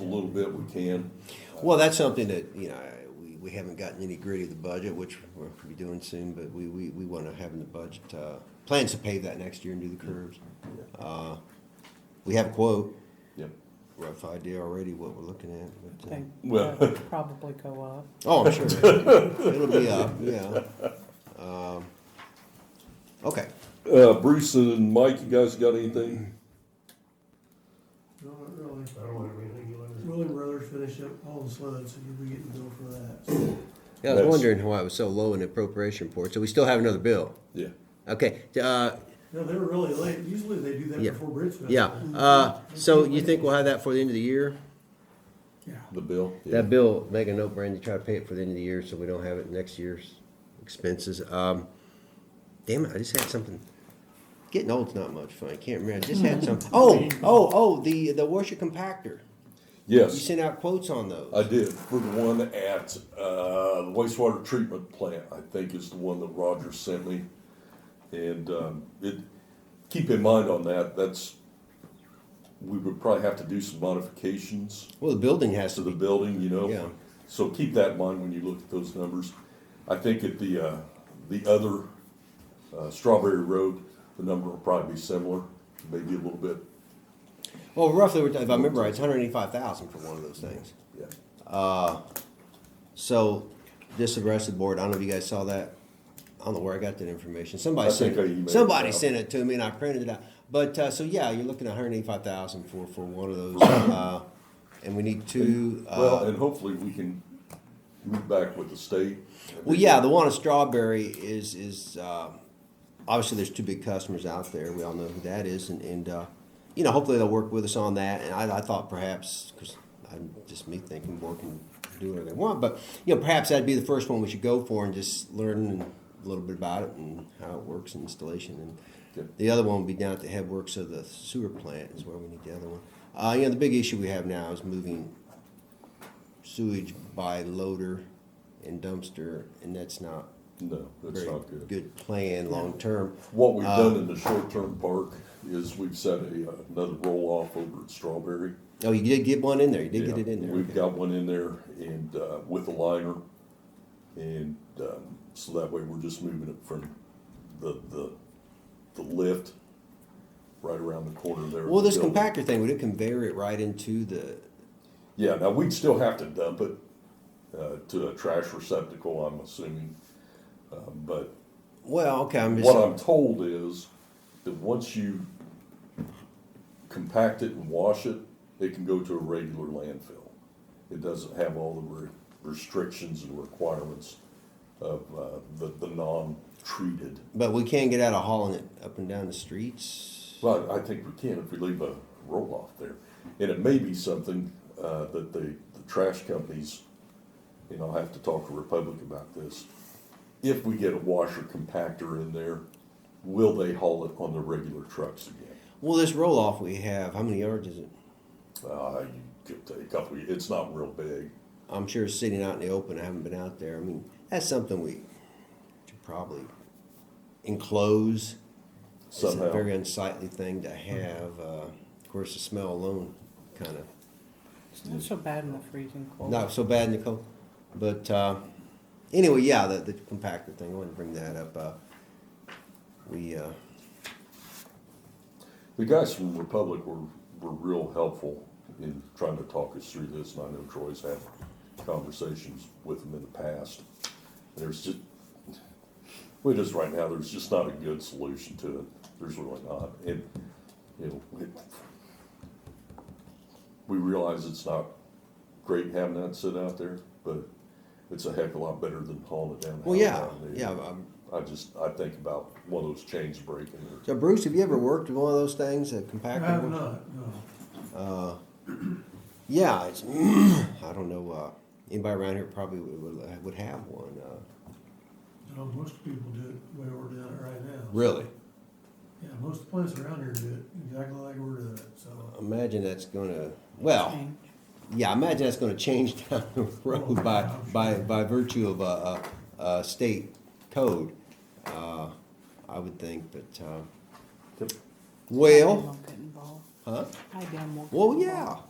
a little bit we can. Well, that's something that, you know, we, we haven't gotten any gritty of the budget, which we'll be doing soon, but we, we, we wanna have in the budget, uh, plans to pave that next year and do the curves. Uh, we have a quote, Yep. rough idea already what we're looking at, but, uh, They Well- they'll probably go up. oh, I'm sure, it'll be up, yeah. Um, Okay, Uh, Bruce and Mike, you guys got anything? No, not really. I don't have anything you want Willie Brothers finished up all the sleds, so you'll be getting billed for that. yeah, I was That's- wondering why it was so low in appropriation report, so we still have another bill, Yeah. okay, uh, No, they were really late. Usually they do that Yeah. before Bridge Festival. yeah, uh, so you think we'll have that for the end of the year? Yeah. The bill? Yeah. That bill, make a note, Brandy, try to pay it for the end of the year so we don't have it next year's expenses. Um, damn it, I just had something. Getting old's not much fun. I can't remember. I just had some. Oh, oh, oh, the, the washer compactor. You Yes, sent out quotes on those. I did, for the one at, uh, the wastewater treatment plant, I think is the one that Roger sent me. And, um, it, keep in mind on that, that's, we would probably have to do some modifications. Well, the building has to the to be, building, you know? Yeah. So keep that in mind when you look at those numbers. I think at the, uh, the other, uh, Strawberry Road, the number will probably be similar, maybe a little bit, well, oh, roughly, we're- if I remember right, it's hundred eighty-five thousand for one of those things. yeah. So, just the rest of the board, I don't know if you guys saw that. I don't know where I got that information. Somebody I sent think I emailed it. it Somebody out. sent it to me, and I printed it out. But uh, so yeah, you're looking at 185,000 for for one of those, uh, and we need two. Well, Uh, and hopefully we can move back with the state. well, yeah, the one at Strawberry is is uh, obviously there's two big customers out there. We all know who that is, and and uh, you know hopefully they'll work with us on that. And I, I thought perhaps because I'm just me thinking, board can do whatever they want, but you know perhaps that'd be the first one we should go for and just learn a little bit about it and how it works and installation. And Yep. the other one would be down at the headworks of the sewer plant is where we need the other one. Uh, you know the big issue we have now is moving sewage by loader and dumpster, and that's not No, that's very not good. good Uh, plan long term. What we've done in the short-term park is we've set a, uh, another roll-off over at Strawberry. Oh, you did get one in there. You did get Yeah, it in there. We've Okay. got one in there and, uh, with a liner. And, um, so that way we're just moving it from the, the, the lift right around the corner there. Well, this Building. compactor thing would it conveyor it right into the? Yeah, now we'd still have to dump it, uh, to a trash receptacle, I'm assuming. Uh, but Well, okay, I'm just. what I'm told is that once you compact it and wash it, it can go to a regular landfill. It doesn't have all the re- restrictions and requirements of uh, the, the non-treated. but we can't get out of hauling it up and down the streets. But I think we can if we leave a roll-off there. And it may be something uh, that the, the trash companies, you know, have to talk to Republic about this. If we get a washer compactor in there, will they haul it on the regular trucks again? Well, this roll off we have, how many yards is it? Uh, you could take a couple, it's not real big. I'm sure it's sitting out in the open. I haven't been out there. I mean, that's something we should probably enclose. It's Somehow. a very unsightly thing to have. Uh, of course, the smell alone kind of It's not so bad in the freezing cold. Not so bad, Nicole. But uh, anyway, yeah, the, the compactor thing. I wanted to bring that up. Uh, we uh, The guys from Republic were, were real helpful in trying to talk us through this, and I know Troy's had conversations with them in the past. There's just, we just right now, there's just not a good solution to it, there's really not, and, you know, it, we realize it's not great having that sit out there, but it's a heck of a lot better than hauling it down. the well, yeah, highway. yeah. Um, I just, I think about one of those chains breaking or so, Bruce, have you ever worked with one of those things, a compactor? I have not, no. Yeah, it's, I don't know. Uh, anybody around here probably would, would, would have one. Uh, No, most people do it the way we're doing it right now. really? Yeah, most of the plants around here do it exactly like we're doing it, so. Imagine that's gonna. Well, Change. yeah, I imagine that's gonna change down the road by Oh, yeah. by by virtue of a, uh uh state code. Uh, I would think, but. Uh, Yep. Well, I damn well couldn't bowl. huh? I damn well. Well, couldn't yeah. bowl.